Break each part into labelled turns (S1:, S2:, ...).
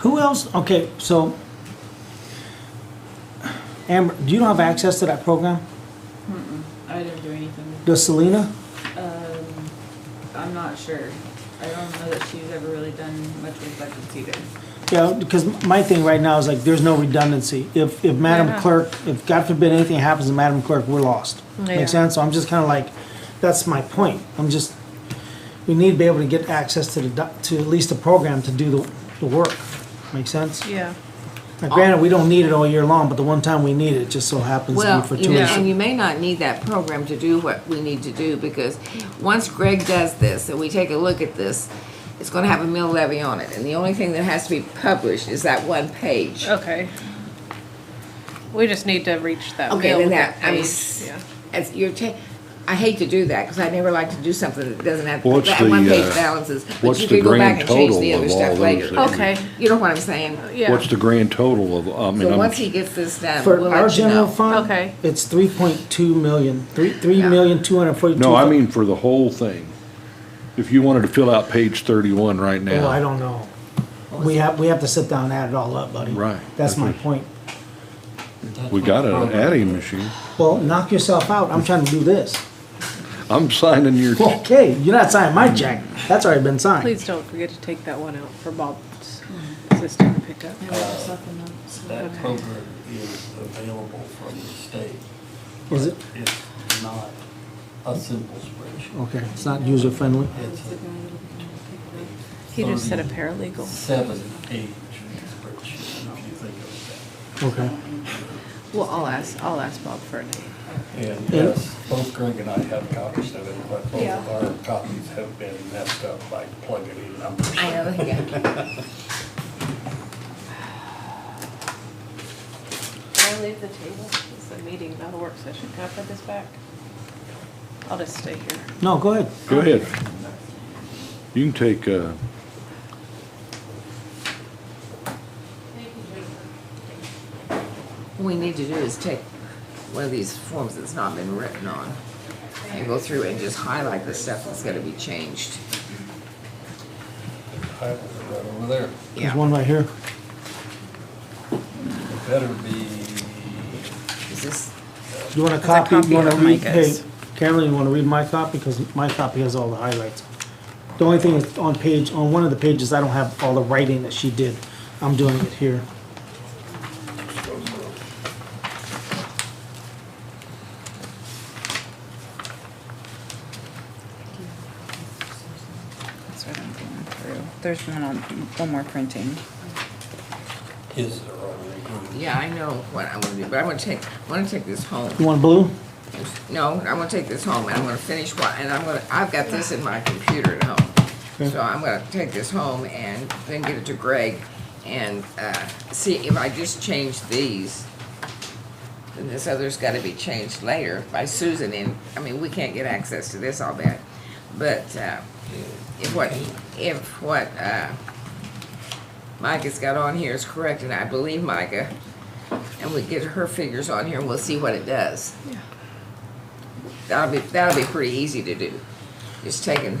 S1: Who else? Okay, so Amber, do you don't have access to that program?
S2: Mm-mm, I didn't do anything.
S1: Does Selena?
S2: Um, I'm not sure. I don't know that she's ever really done much with budgets either.
S1: Yeah, because my thing right now is like, there's no redundancy. If, if Madam
S3: Yeah.
S1: Clerk, if God forbid anything happens to Madam Clerk, we're lost.
S3: Yeah.
S1: Make sense? So I'm just kind of like, that's my point. I'm just, we need to be able to get access to the, doc- to at least the program to do the, the work. Make sense?
S3: Yeah.
S1: Now, Granted, we don't need it all year long, but the one time we need it, it just so happens to be
S4: Well,
S1: for
S4: you
S1: two
S4: know,
S1: weeks.
S4: and you may not need that program to do what we need to do, because once Greg does this, and we take a look at this, it's gonna have a mill levy on it, and the only thing that has to be published is that one page.
S3: Okay. We just need to reach that.
S4: Okay,
S3: middle
S4: then
S3: of
S4: that, I mean,
S3: page, yeah.
S4: as you're ta, I hate to do that, because I never like to do something that doesn't have,
S5: What's
S4: that one
S5: the,
S4: page
S5: uh,
S4: balances, but
S5: what's
S4: you
S5: the
S4: can go back
S5: grand
S4: and change
S5: total
S4: the
S5: of
S4: other
S5: all
S4: stuff
S5: those
S4: later.
S5: that
S3: Okay. Uh,
S4: You know what I'm saying?
S3: Yeah.
S5: What's the grand total of, I mean,
S4: So once he
S5: I'm,
S4: gets this done, we'll
S1: For our
S4: let you
S1: general
S4: know.
S1: fund,
S3: Okay.
S1: it's three point two million, three, three
S4: Yeah.
S1: million, two hundred forty-two.
S5: no, I mean for the whole thing. If you wanted to fill out page thirty-one right
S1: Oh, I
S5: now,
S1: don't know. We have, we have to sit down and add it all up, buddy.
S5: Right.
S1: That's my
S5: Okay.
S1: point.
S5: we got an adding machine.
S1: Well, knock yourself out, I'm trying to do this.
S5: I'm signing your,
S1: Okay, you're not signing my check, that's already been signed.
S3: Please don't forget to take that one out for Bob's assistant to pick up.
S6: Uh, That program is available from the state.
S1: Is it,
S6: It's not a simple spreadsheet.
S1: okay, it's not user friendly?
S6: It's
S3: He
S4: Um,
S3: just said a
S6: a
S3: paralegal.
S6: seven-page spreadsheet, if you think of
S1: Okay.
S3: Well, I'll ask, I'll ask Bob for it.
S6: it that. And yes, both Greg and I have copies of it, but both of our copies have been messed up by plugging in numbers.
S4: I know, yeah.
S3: Can I leave the table? It's a meeting, not a work session. Can I put this back? I'll just stay here.
S1: No, go ahead.
S5: go ahead. You can take, uh,
S4: What we need to do is take one of these forms that's not been written on and go through and just highlight the stuff that's gotta be changed.
S6: Right over there.
S1: There's
S4: Yeah,
S1: one right here.
S6: It better be,
S4: is this,
S1: You want a
S3: That's a
S1: copy,
S3: copy
S1: you wanna
S3: of
S1: read, hey,
S3: Micah's.
S1: Carolyn, you wanna read my copy, because my copy has all the highlights. The only thing is on page, on one of the pages, I don't have all the writing that she did, I'm doing it here.
S2: That's what I'm going through. There's one on, one more printing.
S6: is there already?
S4: yeah, I know what I wanna do, but I wanna take, I wanna take this home.
S1: You want blue?
S4: No, I wanna take this home and I'm gonna finish what, and I'm gonna, I've got this in my computer at home.
S1: Okay.
S4: So I'm gonna take this home and then give it to Greg and, uh, see if I just change these. Then this other's gotta be changed later by Susan and, I mean, we can't get access to this, I'll bet. But, uh, if what, if what, uh, Micah's got on here is correct, and I believe Micah, and we get her figures on here and we'll see what it does. That'll be, that'll be pretty easy to do. Just taking,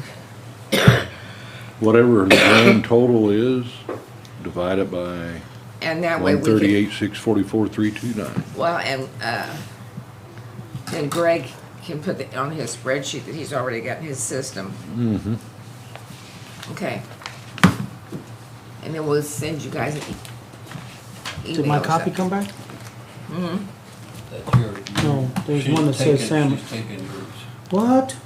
S5: whatever the grand total is, divide it by
S4: and that way
S5: one
S4: we can,
S5: thirty-eight, six forty-four, three two nine.
S4: well, and, uh, then Greg can put it on his spreadsheet that he's already got in his system. Mm-hmm. Okay. And then we'll send you guys an e-
S1: Did my
S4: email or
S1: copy come
S4: something.
S1: back?
S6: That's your.
S1: No, there's one that says Sam.
S6: She's taking groups.
S1: What?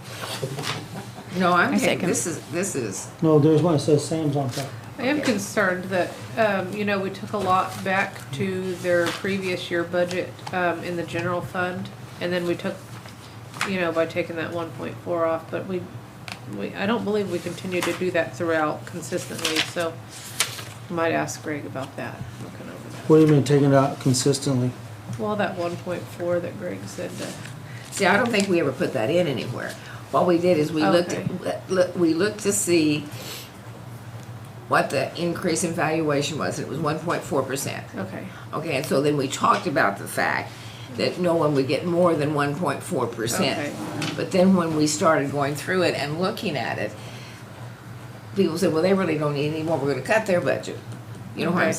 S4: No, I'm
S2: I
S4: taking,
S2: second.
S4: this is, this is,
S1: No, there's one that says Sam's on top.
S3: I am concerned that, um, you know, we took a lot back to their previous year budget, um, in the general fund, and then we took, you know, by taking that one point four off, but we, we, I don't believe we continue to do that throughout consistently, so might ask Greg about that, looking over
S1: What do you mean taking it out consistently?
S3: that. Well, that one point four that Greg said, uh,
S4: see, I don't think we ever put that in anywhere. What we did is we looked, at- look- we looked to see what the increase in valuation was. It was one point four percent.
S3: uh, okay,
S4: Okay, and so then we talked about the fact that no one would get more than one point four
S3: Okay.
S4: percent. But then when we started going through it and looking at it, people said, well, they really don't need any more, we're gonna cut their budget. You know what I'm
S3: Okay.